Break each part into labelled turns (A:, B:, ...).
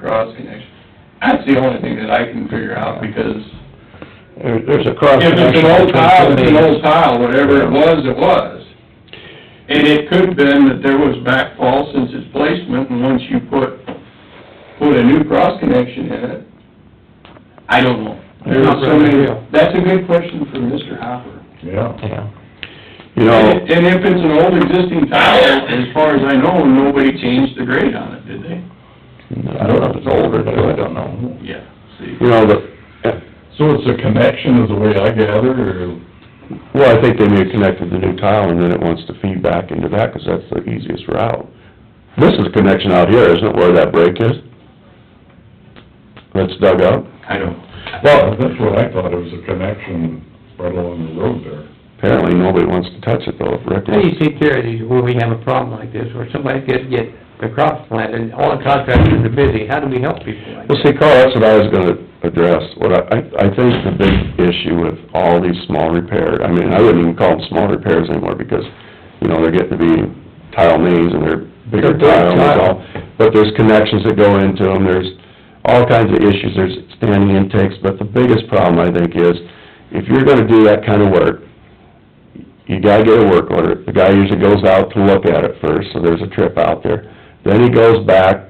A: cross connection. That's the only thing that I can figure out, because
B: There, there's a cross
A: if it's
B: connection.
A: an old
B: between
A: tile,
B: two
A: it's an
B: mains.
A: old tile, whatever it was, it was. And it could have been that there was backfall since its placement, and once you put, put a new cross connection in it, I don't know. There's
B: Not
A: so many,
B: really.
A: that's a good question for Mr. Hopper.
C: Yeah.
B: Yeah. You know,
A: And and if it's an old existing tile, as far as I know, nobody changed the grade on it, did they?
B: I don't know if it's old or new, I don't know.
A: Yeah, see.
B: You know, but,
C: So it's a connection is the way I gather, or,
B: well, I think they may connect with the new tile and then it wants to feed back into that, 'cause that's the easiest route. This is a connection out here, isn't it, where that break is? That's dug up?
A: I don't.
C: well, that's what I thought, it was a connection right along the road there.
B: Apparently, nobody wants to touch it though, if Rick
D: How do you
B: wants.
D: take care of these, when we have a problem like this, where somebody could get the crops planted, all the contractors are busy, how do we help people like
B: Well,
D: that?
B: see, Carl, that's what I was gonna address, what I, I I think the big issue with all these small repair, I mean, I wouldn't even call them small repairs anymore, because, you know, they're getting to be tile mains and they're bigger
D: They're big
B: tile and
D: tile.
B: all, but there's connections that go into them, there's all kinds of issues, there's standing intakes, but the biggest problem, I think, is, if you're gonna do that kind of work, you gotta get a work order. The guy usually goes out to look at it first, so there's a trip out there. Then he goes back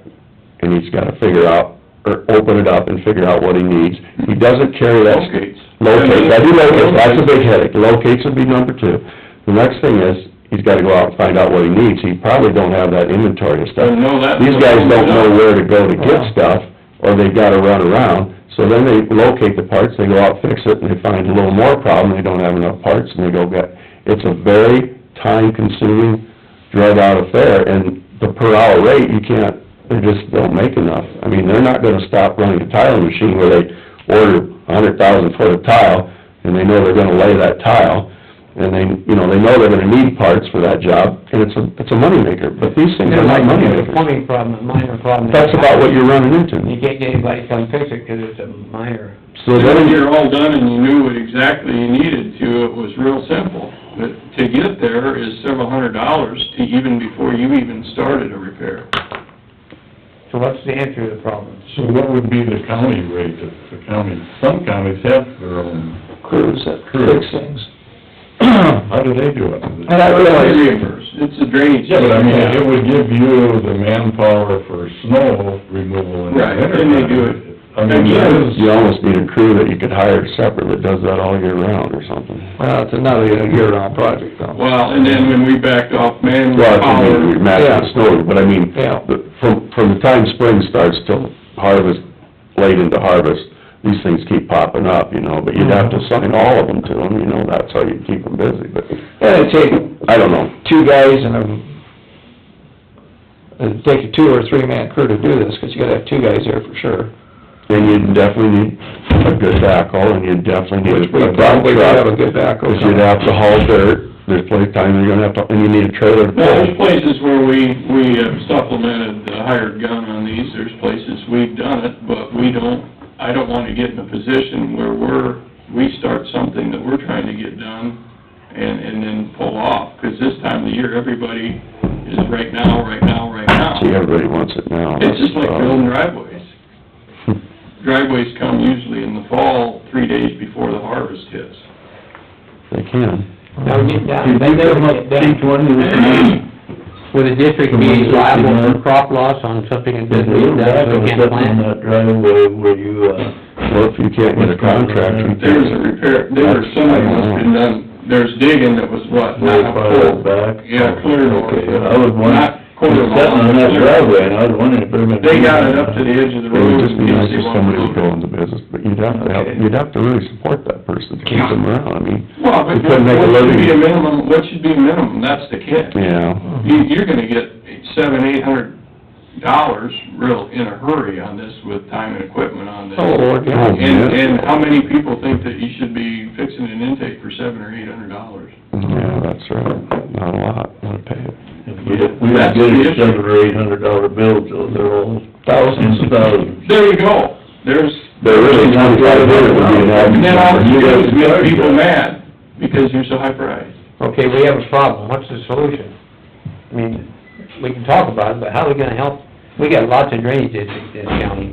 B: and he's gotta figure out, or open it up and figure out what he needs. He doesn't carry that.
A: Locates.
B: Locates, I do locates, that's a big headache. Locates would be number two. The next thing is, he's gotta go out and find out what he needs. He probably don't have that inventory of stuff.
A: No, that's-
B: These guys don't know where to go to get stuff, or they've gotta run around. So then they locate the parts, they go out, fix it, and they find a little more problem, they don't have enough parts, and they go get, it's a very time-consuming, drug-out affair, and the per-hour rate, you can't, they just don't make enough. I mean, they're not gonna stop running a tile machine where they order a hundred thousand foot of tile, and they know they're gonna lay that tile, and they, you know, they know they're gonna need parts for that job, and it's a, it's a moneymaker, but these things
D: They're
B: are not
D: like,
B: moneymakers.
D: it's a plumbing problem, a minor problem.
B: That's about what you're running
D: You
B: into.
D: can't get anybody to come fix it, 'cause it's a minor.
B: So
A: When
B: then,
A: you're all done and you knew what exactly you needed to, it was real simple. But to get there is several hundred dollars to even before you even started a repair.
D: So what's the answer to the problem?
C: So what would be the county rate, if the county, some counties have their own,
B: crews that
C: fix
B: things.
C: how do they do it?
B: And I
A: It's
B: realize,
A: reimbursed. It's a drainage.
C: Yeah, but I mean, it would give you the manpower for snow removal in the
A: Right,
C: winter.
A: and they do
C: time.
A: it.
C: I mean, that is,
B: you almost need a crew that you could hire separate that does that all year round or something.
E: Well, it's another year-round project, though.
A: Well, and then when we backed off
B: Well, I mean, we
A: manpower,
B: match the
E: Yeah.
B: snow, but I mean,
E: Yeah.
B: the- from, from the time spring starts till harvest, late into harvest, these things keep popping up, you know, but you'd have to
E: Mm-hmm.
B: assign all of them to them, you know, that's how you keep them busy, but,
E: And it'd take
B: I don't know.
E: two guys and a, it'd take a two or three-man crew to do this, 'cause you gotta have two guys there for sure.
B: Then you'd definitely need a good backhoe, and you'd definitely need a...
E: Which we probably would have a good backhoe.
B: Because you'd have to haul dirt, there's plenty of time you're gonna have to, and you need a trailer to
A: well, there's
B: pull.
A: places where we, we have supplemented the hired gun on these, there's places we've done it, but we don't, I don't wanna get in a position where we're, we start something that we're trying to get done and, and then pull off, 'cause this time of the year, everybody is right now, right now, right now.
B: See, everybody wants it now.
A: It's just like
B: That's, uh,
A: building driveways. Driveways come usually in the fall, three days before the harvest hits.
B: They can.
D: Now, get down,
C: did
D: they
C: you
D: never
C: come up,
D: get
C: each
D: down.
C: one of these?
D: Would the district be liable for crop loss on something that doesn't get done, so we can't plant?
F: that driveway where you, uh,
B: Well, if you can't get a contractor, you
A: There was a
B: can't.
A: repair, there was something must have been done, there's digging that was what, not full.
F: back.
A: Yeah, clear north.
F: Okay, I was wondering,
A: Not quarter
F: it's sitting on that
A: mile.
F: driveway, and I was wondering if they're gonna.
A: They got it up to the edge of the
B: It would
A: road.
B: just be
A: in
B: nice
A: case they
B: if
A: wanted
B: somebody would
A: to-
B: go into business, but you'd have to, have you'd have to really support that person, to keep them around, I mean,
A: Well, but
B: You couldn't make a
A: what should
B: living.
A: be a minimum, what should be a minimum, that's the catch.
B: yeah.
A: You, you're gonna get seven, eight hundred dollars real in a hurry on this with time and equipment on this.
E: Oh, Lord, yeah.
B: Oh,
A: And,
B: yeah.
A: and how many people think that you should be fixing an intake for seven or eight hundred dollars?
B: Yeah, that's right, not a lot, not a pay it.
F: We don't get a seven or eight hundred dollar bill, so they're all thousands and thousands.
A: There you go, there's,
B: There really, twenty-five hundred would be an
A: and then all you do is
B: average.
A: get people mad because you're so high priced.
D: Okay, we have a problem, what's the solution? I mean, we can talk about it, but how are we gonna help? We got lots of drainage districts in this county.